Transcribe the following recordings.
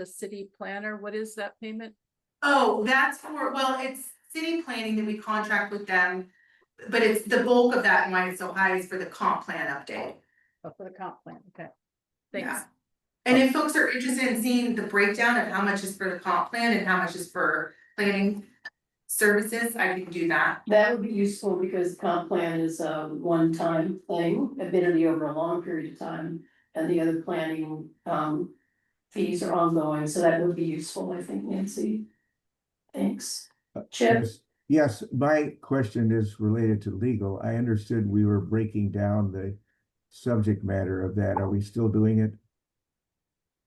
the city planner, what is that payment? Oh, that's for, well, it's city planning that we contract with them. But it's the bulk of that and why it's so high is for the comp plan update. Oh, for the comp plan, okay. Thanks. Yeah. And if folks are interested in seeing the breakdown of how much is for the comp plan and how much is for planning services, I can do that. That would be useful because comp plan is a one-time thing, admittedly over a long period of time. And the other planning um fees are ongoing, so that would be useful, I think, Nancy. Thanks. Chip, Yes, Yes, my question is related to legal. I understood we were breaking down the subject matter of that. Are we still doing it?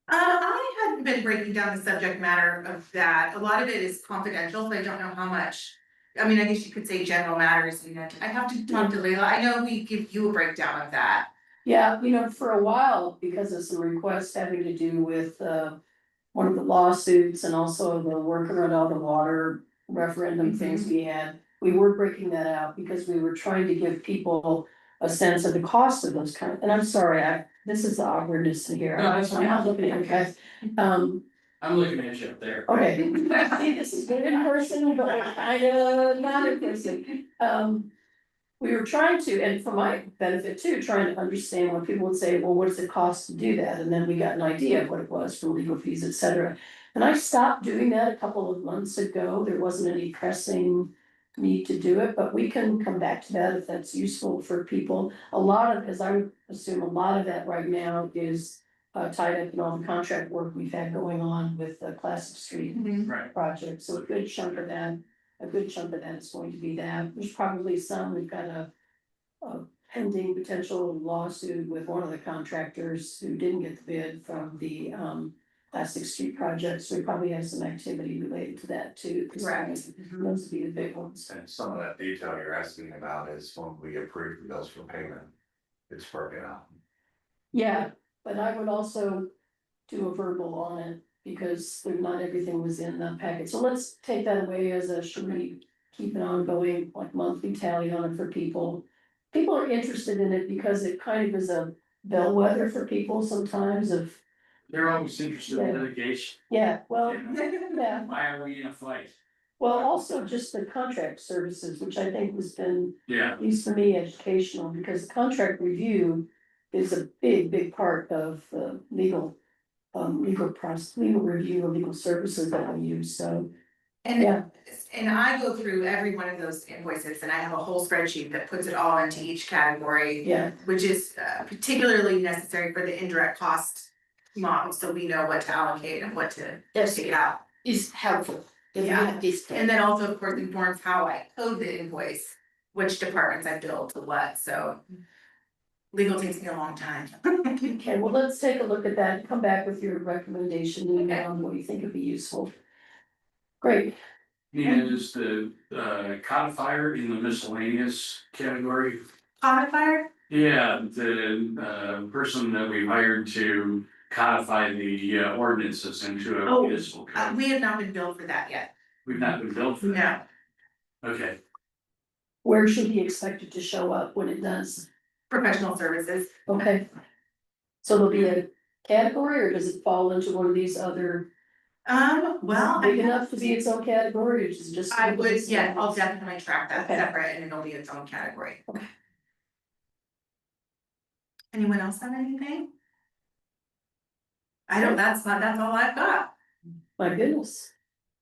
Uh, I hadn't been breaking down the subject matter of that. A lot of it is confidential, so I don't know how much. I mean, I guess you could say general matters and then I have to talk to Leila. I know we give you a breakdown of that. yeah, you know, for a while, because of some requests having to do with uh. One of the lawsuits and also the work around all the water Mm-hmm. referendum things we had. We were breaking that out because we were trying to give people a sense of the cost of those kind, and I'm sorry, I, this is the awkwardness in here, No, I'm that's fine. not looking at you guys. Um, I'm looking at you up there. Oh. okay, see, this is good in person, but kind of not in person, um. We were trying to, and for my benefit too, trying to understand when people would say, well, what does it cost to do that, and then we got an idea of what it was for legal fees, et cetera. And I stopped doing that a couple of months ago, there wasn't any pressing need to do it, but we can come back to that if that's useful for people. A lot of, as I would assume, a lot of that right now is uh tied up in all the contract work we've had going on with the Classic Street Right. project, so a good chunk of that, a good chunk of that is going to be that, there's probably some, we've got a. A pending potential lawsuit with one of the contractors who didn't get the bid from the um plastic street project, so we probably have some activity related to that too. 'cause Correct. Those would be the big ones, And some of that detail you're asking about is when we approve the bills for payment. It's broken out. yeah, but I would also do a verbal on it, because there- not everything was in the packet, so let's take that away as a, should we keep an ongoing, like monthly tally on it for people. People are interested in it because it kind of is a bellwether for people sometimes of, They're always interested in Yeah. litigation. yeah, well, Oh. yeah. Why are we in a fight? Well, also just the contract services, which I think has been, Yeah. at least for me, educational, because contract review is a big, big part of the legal, um, legal process, legal review of legal services that we use, so, And yeah. And I go through every one of those invoices and I have a whole spreadsheet that puts it all into each category, Yeah, which is uh, particularly necessary for the indirect cost model, so we know what to allocate and what to That's take out. is helpful, if we Yeah. have this And thing. then also, of course, informs how I code the invoice, which departments I bill to what, so legal takes me a long time. okay, well, let's take a look at that, and come back with your recommendation, and um, what you think would be useful. Great, And is the uh codifier in the miscellaneous category? Codifier, Yeah, the uh person that we hired to codify the uh, ordinances into a Oh, municipal uh, code. we have not been billed for that yet, We've not been built Mm-hmm. for that. no. Okay, where should he expect it to show up when it does? Professional services, Okay. So there'll be a category or does it fall into one of these other, um, well. I big enough to be its own category or is it just? I would, yeah, I'll definitely track that Okay. separate and it'll be its own category. Okay. Anyone else have anything? I don't, that's not, that's all I've got. My goodness.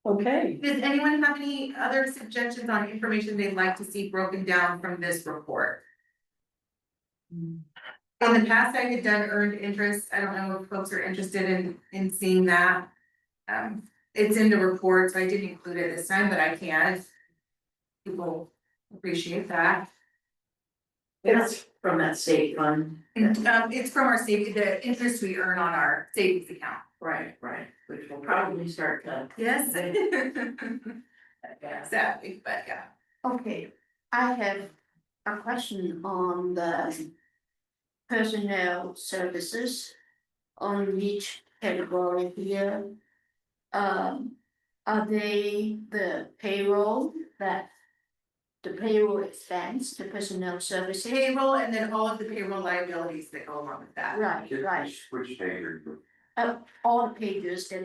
Okay, Does anyone have any other suggestions on information they'd like to see broken down from this report? In the past, I had done earned interest. I don't know if folks are interested in, in seeing that. Um, it's in the report, so I didn't include it this time, but I can. if People appreciate that. That's from that state fund. Um, it's from our savings, the interest we earn on our savings account. Right, right, which will probably start to, Yes. yeah. Exactly, but yeah. Okay, I have a question on the personnel services on each category here. Um, are they the payroll that the payroll expense, the personnel services? Payroll and then all of the payroll liabilities that go along with that. Right, right, Which page are you? all the pages that